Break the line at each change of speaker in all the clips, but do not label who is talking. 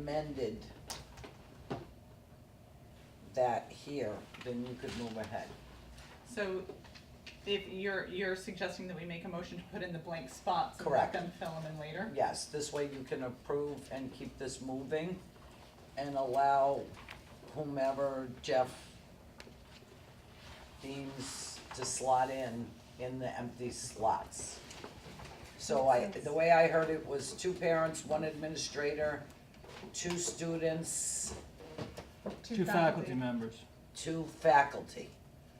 amended that here, then you could move ahead.
So if you're, you're suggesting that we make a motion to put in the blank spots and
Correct.
let them fill them in later?
Yes, this way you can approve and keep this moving and allow whomever Jeff deems to slot in, in the empty slots. So I, the way I heard it was two parents, one administrator, two students,
Two faculty members,
two faculty.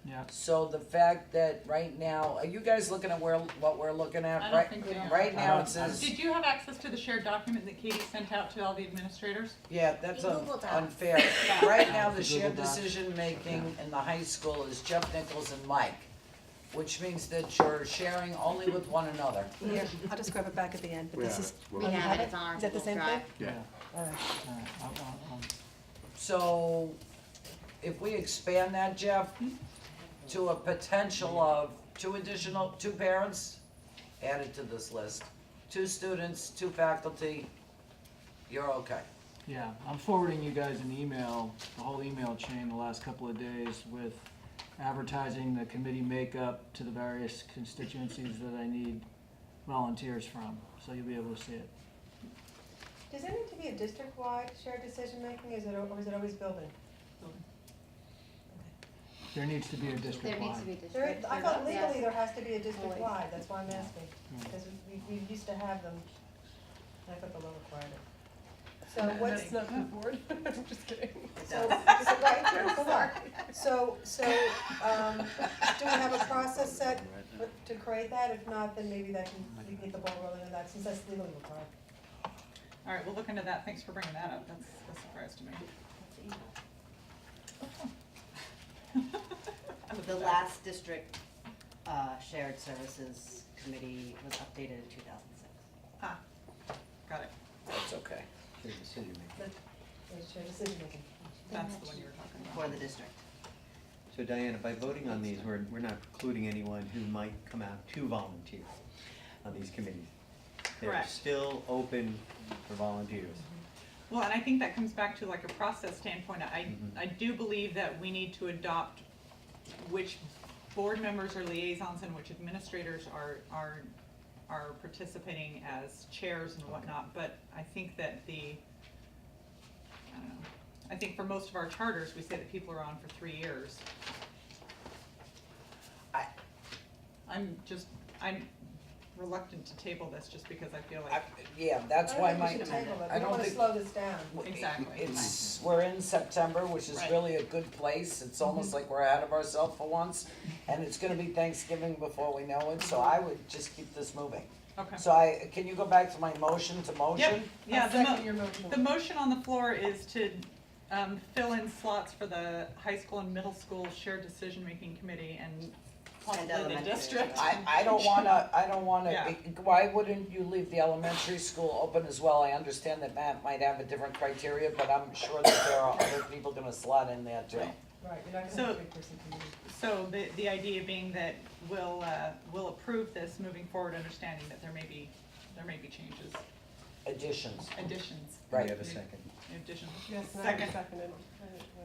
yeah.
So the fact that right now, are you guys looking at where, what we're looking at?
I don't
right?
think they are.
Right now it
I don't-
says,
Did you have access to the shared document that Katie sent out to all the administrators?
yeah, that's
In
un-
Google Docs.
unfair. Right now, the
The
shared
Google Docs.
decision-making in the high school is Jeff Nichols and Mike, which means that you're sharing only with one another.
Here, I'll just grab it back at the end, but
We
this
have
is.
it. We
oh, you
have it, it's on our
Is that the
Google
same thing?
Drive.
Yeah.
All right.
All right, I'll- I'll- I'll-
So if we expand that, Jeff,
Hmm?
to a potential of two additional, two parents added to this list, two students, two faculty, you're okay.
Yeah, I'm forwarding you guys an email, the whole email chain the last couple of days with advertising the committee makeup to the various constituencies that I need volunteers from, so you'll be able to see it.
Does it need to be a district-wide shared decision-making, is it, or is it always building?
There needs to be a
There needs to be
district-wide.
district.
There, I thought
there's- yes.
legally there has to be a district-wide, that's why I'm asking,
Mm.
because we, we used to have them, and I thought the law required it. So
And
what's
then-
the,
board, I'm just kidding.
so, is it right, Here's the law. so, so, um, do we have a process set for- to create that? If not, then maybe that can, we can get the ball rolling on that, since that's legally required.
All right, we'll look into that. Thanks for bringing that up. That's a surprise to me.
The last district uh, shared services committee was updated in two thousand six.
Ah, got it.
That's okay.
There's shared decision-making.
That's the one you were talking about.
for the district.
So Diana, by voting on these, we're, we're not precluding anyone who might come out to volunteer on these committees. They're
Correct.
still open for volunteers.
Well, and I think that comes back to like a process standpoint. I,
Mhm.
I do believe that we need to adopt which board members are liaisons and which administrators are, are, are participating as chairs and whatnot, but I think that the, I don't know, I think for most of our charters, we say that people are on for three years.
I-
I'm just, I'm reluctant to table this just because I feel
I-
like,
Yeah, that's why my,
I don't think we should table
I
it, we
don't
don't wanna
think-
slow this down.
Exactly.
it's, we're in September, which is
Right.
really a good place. It's
Mm-hmm.
almost like we're ahead of ourselves for once. And it's gonna be Thanksgiving before we know it,
Mm-hmm.
so I would just keep this moving.
okay.
So I, can you go back to my motion to motion?
Yeah, the mo-
your motion.
The motion on the floor is to um, fill in slots for the high school and middle school shared decision-making committee and possibly the
elementary as
district.
well.
I, I don't wanna, I don't
Yeah.
wanna, why wouldn't you leave the elementary school open as well? I understand that Matt might have a different criteria, but I'm sure that there are other people gonna slot in there too.
Right, you're not gonna
So-
have a three-person committee.
So the, the idea being that we'll, uh, we'll approve this moving forward, understanding that there may be, there may be changes,
Additions.
additions,
Do
Right.
we have a second?
additions.
Yes, and I
Second.
seconded.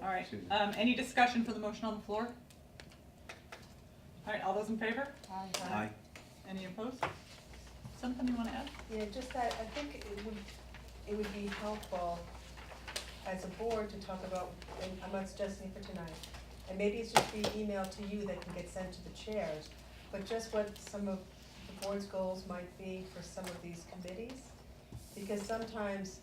All right,
Susan.
um, any discussion for the motion on the floor? All right, all those in favor?
Aye.
Any opposed? Something you wanna add?
Yeah, just that, I think it would, it would be helpful as a board to talk about, and I'm not suggesting it for tonight, and maybe it's just be emailed to you that can get sent to the chairs, but just what some of the board's goals might be for some of these committees. Because sometimes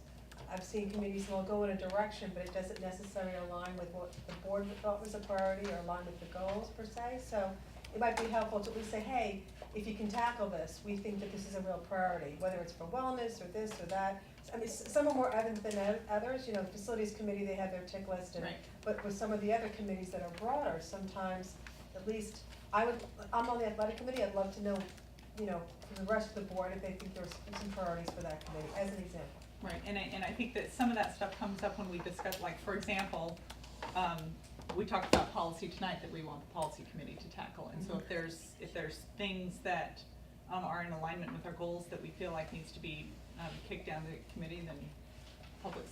I've seen committees, will go in a direction, but it doesn't necessarily align with what the board thought was a priority or align with the goals per se. So it might be helpful to at least say, hey, if you can tackle this, we think that this is a real priority, whether it's for wellness or this or that. I mean, s- some are more evident than oth- others, you know, the facilities committee, they have their tick list and,
Right.
but with some of the other committees that are broader, sometimes, at least, I would, I'm on the athletic committee, I'd love to know, you know, from the rest of the board, if they think there's some priorities for that committee, as an example.
Right, and I, and I think that some of that stuff comes up when we discuss, like, for example, um, we talked about policy tonight that we want the policy committee to tackle, and so if there's, if there's things that, um, are in alignment with our goals that we feel like needs to be, um, kicked down the committee, then public